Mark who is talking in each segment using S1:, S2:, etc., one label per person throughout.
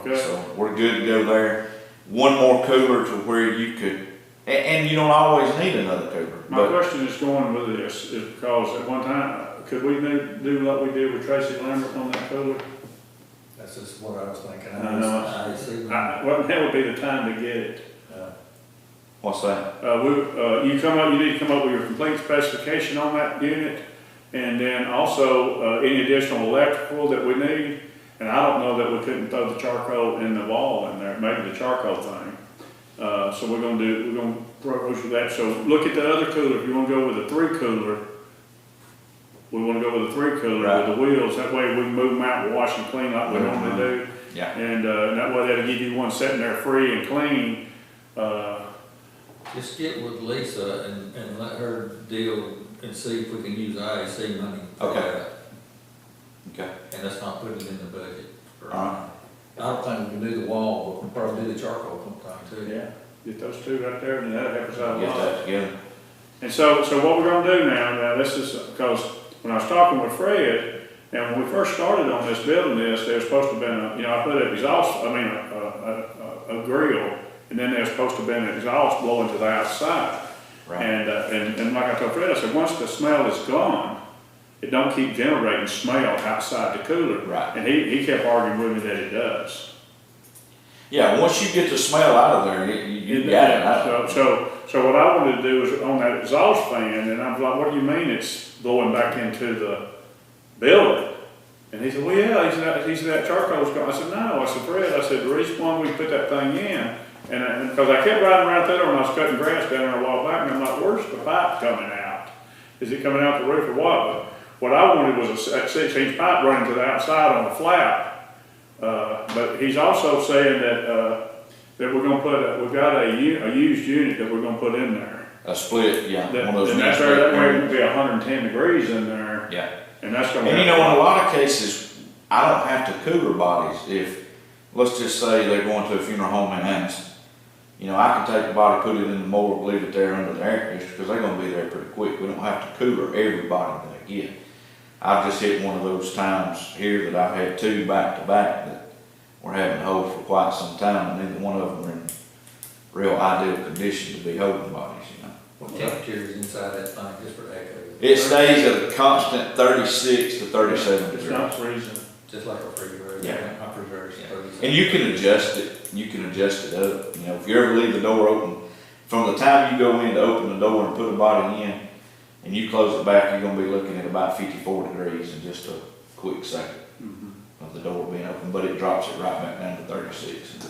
S1: Okay.
S2: So we're good to go there. One more cooler to where you could, and, and you don't always need another cooler.
S1: My
S2: But
S1: question is going with this is because at one time, could we do, do what we did with Tracy Lambert on that cooler?
S3: That's just what I was thinking.
S1: I know. I, well, that would be the time to get it.
S2: what's that?
S1: Uh, we, uh, you come up, you need to come up with your complete specification on that unit, and then also, uh, any additional electrical that we need. And I don't know that we couldn't throw the charcoal in the wall in there, maybe the charcoal thing. Uh, so we're gonna do, we're gonna approach with that, so look at the other cooler, if you wanna go with a three cooler, we wanna go with a three cooler
S2: Right. Mm-hmm.
S1: with the wheels, that way we can move them out, and wash and clean like we normally do.
S2: Yeah,
S1: And, uh, that way that'll give you one sitting there free and clean, uh,
S3: Just get with Lisa and, and let her deal and see if we can use IAC money. for
S2: Okay.
S3: that.
S2: okay,
S3: And that's not putting it in the budget. for-
S2: alright,
S3: I don't think we can do the wall, but we'll probably do the charcoal sometime too.
S1: Yeah, get those two right there, and that'll help us out a
S2: get
S1: lot.
S2: that together.
S1: And so, so what we're gonna do now, now this is, because when I was talking with Fred, and when we first started on this building this, there's supposed to have been, a- you know, I put an exhaust, I mean, a, a, a, a grill, and then there's supposed to have been an exhaust blowing to the outside.
S2: Right,
S1: And, uh, and, and like I told Fred, I said, once the smell is gone, it don't keep generating smell outside the cooler.
S2: right.
S1: And he, he kept arguing with me that it does.
S2: Yeah, once you get the smell out of there, you, you you got it. I-
S1: So, so, so what I wanted to do is on that exhaust fan, and I'm like, what do you mean it's blowing back into the building? And he said, well, yeah, he said, he said that charcoal's gone. I said, no, I said, Fred, I said, the reason why we put that thing in, and, I- and, cause I kept riding around through there when I was cutting grass down there a while back, and I'm like, where's the pipe coming out? Is it coming out the roof or what? But what I wanted was a s- a six inch pipe running to the outside on the flap. Uh, but he's also saying that, uh, that we're gonna put, a- we've got a u- a used unit that we're gonna put in there.
S2: A split, yeah.
S1: That,
S2: one of those
S1: and that's,
S2: mini
S1: there, that
S2: split
S1: way it
S2: rooms.
S1: would be hundred and ten degrees in there,
S2: Yeah.
S1: and that's gonna.
S2: And you know,
S1: have-
S2: in a lot of cases, I don't have to cooler bodies if, let's just say they're going to a funeral home in Anniston. You know, I can take the body, put it in the mold, leave it there under the air conditioner, because they're gonna be there pretty quick. We don't have to cooler every body that I get. I've just hit one of those times here that I've had two back to back that we're having to hold for quite some time, and neither one of them are in real ideal condition to be holding bodies, you know.
S3: What temperature is inside that thing, just for echo?
S2: It stays at a constant thirty-six to thirty-seven
S1: It's
S2: degrees.
S1: not freezing.
S3: Just like a refrigerator.
S2: Yeah.
S3: My refrigerator's
S2: Yeah.
S3: thirty-seven.
S2: And you can adjust it, you can adjust it up, you know, if you ever leave the door open, from the time you go in to open the door and put a body in, and you close it back, you're gonna be looking at about fifty-four degrees in just a quick second
S1: Mm-hmm.
S2: of the door being open, but it drops it right back down to thirty-six in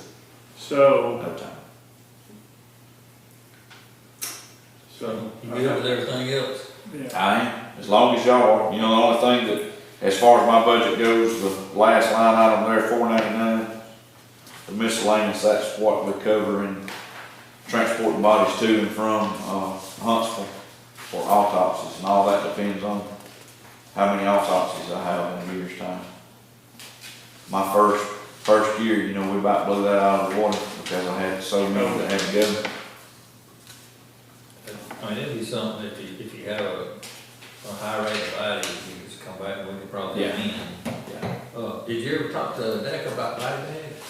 S1: So,
S2: no time.
S1: so.
S3: You good with everything else?
S1: Yeah.
S2: I am, as long as y'all are, you know, the only thing that, as far as my budget goes, the last line item there, four ninety-nine, the miscellaneous, that's what we cover in transporting bodies to and from, uh, Huntsville for autopsies, and all that depends on how many autopsies I have in a year's time. My first, first year, you know, we about blew that out of the water because I had so many that had to go.
S3: I mean, it'd be something that you, if you have a, a high rate of body, you just come back and we could probably
S2: Yeah.
S3: amend. Uh, did you ever talk to Deck about body bags?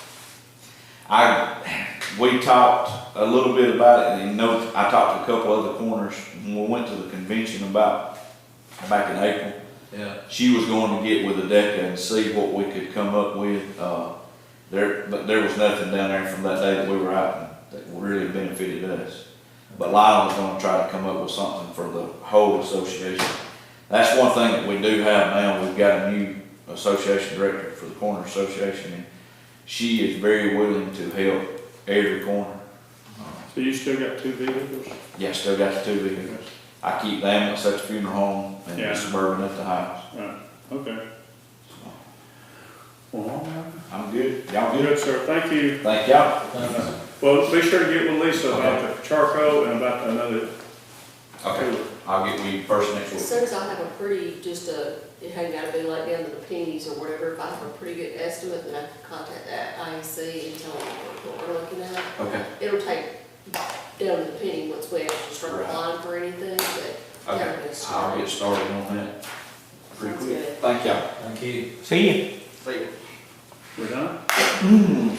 S2: I, we talked a little bit about it, and you know, I talked to a couple other corners, when we went to the convention about, back in April.
S3: Yeah.
S2: She was going to get with Adeka and see what we could come up with, uh, there, but there was nothing down there from that day that we were out that really benefited us. But Lyle was gonna try to come up with something for the whole association. That's one thing that we do have now, we've got a new association director for the corner association, and she is very willing to help every corner.
S1: So you still got two vehicles?
S2: Yeah, still got the two vehicles. I keep the ambulance at the funeral home and
S1: Yeah.
S2: the suburban at the house.
S1: Right, okay. Well,
S2: I'm good, y'all good?
S1: good, sir, thank you.
S2: Thank y'all.
S3: Thanks.
S1: Well, be sure to get with Lisa about the charcoal and about another
S2: Okay, I'll get with you first next
S4: It
S2: week.
S4: seems I have a pretty, just a, it hadn't gotta be like down to the pennies or whatever, if I have a pretty good estimate, then I can contact that IAC and tell them what we're looking at.
S2: Okay,
S4: It'll take down to the penny once we actually start
S2: Right.
S4: applying for anything, but. yeah,
S2: okay,
S4: it's-
S2: I'll get started on that. Pretty
S4: Sounds
S2: quick.
S4: good.
S2: Thank y'all.
S3: Thank you.
S2: See you. See you.
S1: We're done?